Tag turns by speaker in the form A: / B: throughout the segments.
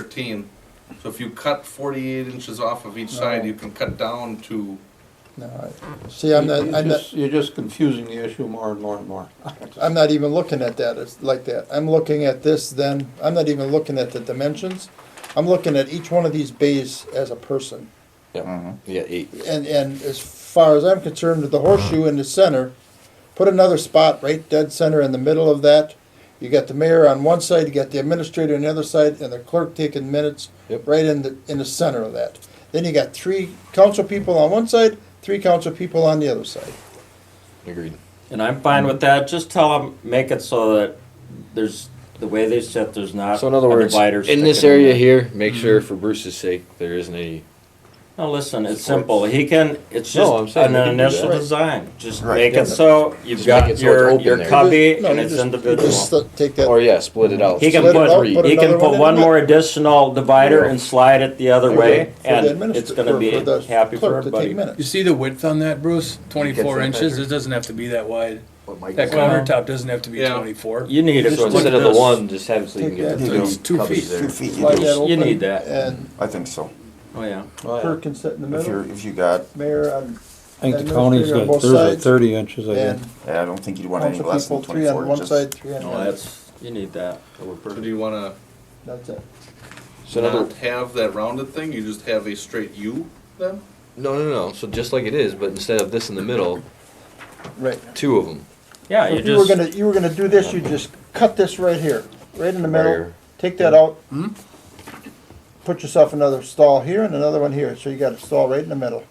A: thirteen. So if you cut forty-eight inches off of each side, you can cut down to,
B: No, I- See, I'm not,
C: You're
B: I'm not,
C: just- You're just confusing the issue more and more and more.
B: I'm not even looking at that, it's like that. I'm looking at this then, I'm not even looking at the dimensions. I'm looking at each one of these bays as a person.
D: Yeah, yeah, eight.
B: And, and as far as I'm concerned, the horseshoe in the center, put another spot right dead center in the middle of that. You got the mayor on one side, you got the administrator on the other side, and the clerk taking minutes
D: Yep.
B: right in the, in the center of that. Then you got three council people on one side, three council people on the other side.
D: Agreed.
E: And I'm fine with that, just tell them, make it so that there's, the way they sit, there's not
D: So in other
E: a
D: words,
E: divider
D: in this
E: sticking
D: area
E: there.
D: here, make sure for Bruce's sake, there isn't any.
E: No, listen, it's simple, he can, it's just
D: No, I'm saying
E: an
D: we can do
E: initial
D: that.
E: design, just
F: Right.
E: make
B: Yeah.
E: it so
D: Just
E: you've
D: make it so
E: got
D: it's
E: your,
D: open
E: your
D: there.
E: cubby
B: No,
E: and
B: you
E: it's
B: just- you
E: individual.
B: Just uh, take that.
D: Or yeah, split it out.
E: He can
B: Split it out,
E: put,
B: put
E: he
B: another
E: can
B: one
E: put
B: in
E: one
B: there.
E: more additional divider and slide it the other
B: For
E: way,
B: the- for the
E: and
B: administrat-
E: it's gonna
B: for-
E: be
B: for the
E: happy for
B: clerk to take
E: everybody.
B: minutes.
G: You see the width on that, Bruce? Twenty-four
D: Gets that
G: inches,
D: picture.
G: it doesn't have to be that wide. That
D: So
E: Well-
G: countertop doesn't have to be
A: Yeah.
G: twenty-four.
E: You need it,
G: Just
D: so
G: look
D: instead of
G: at
D: the
G: this.
D: one, just have so you can get
B: Take
D: the
B: that.
G: It's two
D: covers
G: feet.
D: there.
F: Two feet, you
B: Slide
F: do.
B: that
E: You
B: open,
E: need that.
B: And
F: I think so.
E: oh yeah.
B: clerk can sit in the
F: If you're,
B: middle,
F: if you got,
B: mayor on,
C: I think the
B: And
C: county's
B: those three on
C: got
B: both
C: thirty,
B: sides.
C: thirty inches, I
B: and
C: think.
F: Uh, I don't think you'd want any
B: council
F: less
B: people,
F: than
B: three on
F: twenty-four
B: one side,
F: inches.
B: three on the
E: No,
B: other.
E: that's, you need that.
A: so do you wanna
B: That's it.
D: So in
A: not
D: other,
A: have that rounded thing, you just have a straight U then?
D: no, no, no. So just like it is, but instead of this in the middle,
B: Right.
D: two of them.
E: Yeah,
B: So
E: you
B: if you were
E: just,
B: gonna, you were gonna do this, you just cut this right here, right in the middle,
D: Barrier.
B: take that out.
F: Hmm?
B: Put yourself another stall here and another one here, so you got a stall right in the middle.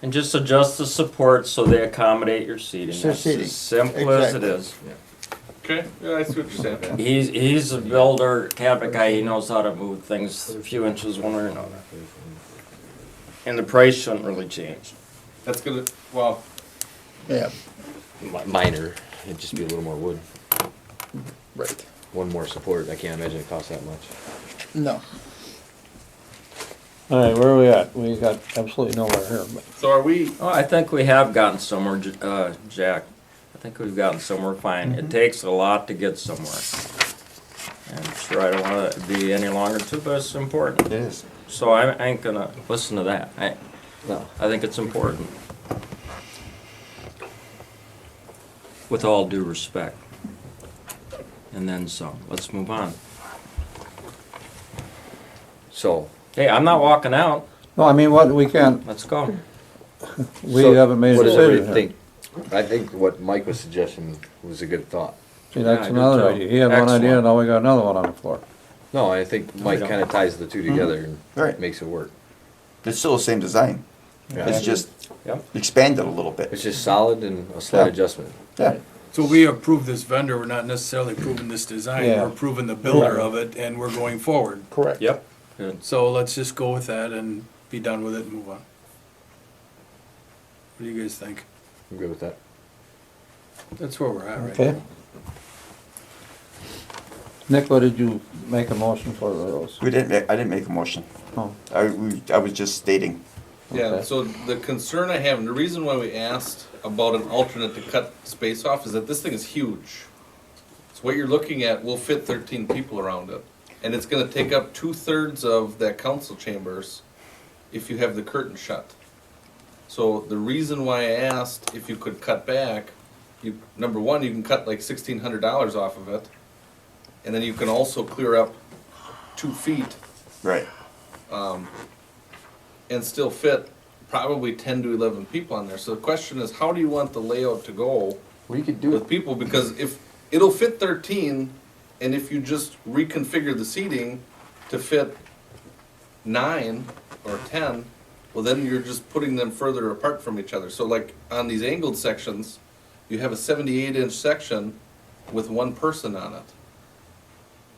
E: and just adjust the support so they accommodate your seating,
B: It's your
E: that's
B: seating.
E: as simple as it
B: Exactly.
E: is.
A: Okay, yeah, I see what you're saying.
E: He's, he's a builder, cabinet guy, he knows how to move things a few inches one way or another. And the price shouldn't really change.
A: That's gonna, well,
B: Yeah,
D: Mi- Minor. It'd just be a little more wood.
B: right.
D: One more support. I can't imagine it costs that much.
B: No,
C: All right, where are we at? We got absolutely nowhere here, but
A: so are we,
E: Oh, I think we have gotten somewhere, J- uh, Jack. I think we've gotten somewhere fine. It takes a lot to get somewhere. And sure, I don't wanna be any longer too, but it's important.
F: It is.
E: So I I ain't gonna listen to that. I,
D: No.
E: I think it's important. With all due respect. And then some. Let's move on.
D: So
E: Hey, I'm not walking out.
C: No, I mean, what, we can't,
E: Let's go.
C: we
D: so
C: haven't made a
D: what does everybody
C: decision here.
D: think? I think what Mike was suggesting was a good thought.
C: See,
E: Yeah, I
C: that's
E: do
C: another
E: too.
C: idea. He had one idea,
E: Excellent.
C: now we got another one on the floor.
D: No, I think Mike
E: don't.
D: kind of ties the two together and
F: Right.
D: makes it work.
F: It's still the same design. It's just
E: Yep.
F: expanded a little
D: It's
F: bit.
D: just solid and a slight
F: Yeah.
D: adjustment.
F: Yeah.
G: So we approve this vendor, we're not necessarily approving this design,
C: Yeah.
G: we're approving the builder of it, and we're going forward.
B: correct.
E: Yep. Good.
G: So let's just go with that and be done with it and move on. What do you guys think?
D: I'm good with that.
G: That's where we're at right
C: Okay?
G: now.
C: Nick, what did you make a motion for those?
F: We didn't, ma- I didn't make a motion.
C: Oh,
F: I, we, I was just stating.
A: yeah,
C: Okay.
A: so the concern I have, and the reason why we asked about an alternate to cut space off is that this thing is huge. So what you're looking at will fit thirteen people around it, and it's gonna take up two-thirds of that council chambers if you have the curtain shut. So the reason why I asked if you could cut back, you, number one, you can cut like sixteen hundred dollars off of it, and then you can also clear up two feet
F: Right.
A: and still fit probably ten to eleven people on there. So the question is, how do you want the layout to go
D: We could
A: with people? Because if, it'll fit thirteen, and if you just reconfigure the seating to fit nine or ten, well, then you're just putting them further apart from each other. So like on these angled sections, you have a seventy-eight inch section with one person on it.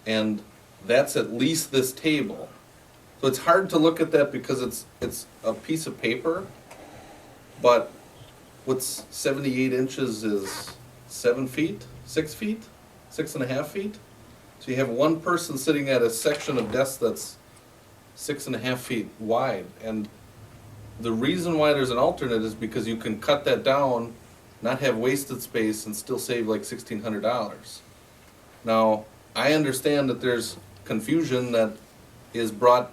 A: And that's at least this table. So it's hard to look at that because it's, it's a piece of paper, but what's seventy-eight inches is seven feet, six feet, six and a half feet? So you have one person sitting at a section of desk that's six and a half feet wide, and the reason why there's an alternate is because you can cut that down, not have wasted space, and still save like sixteen hundred dollars. Now, I understand that there's confusion that is brought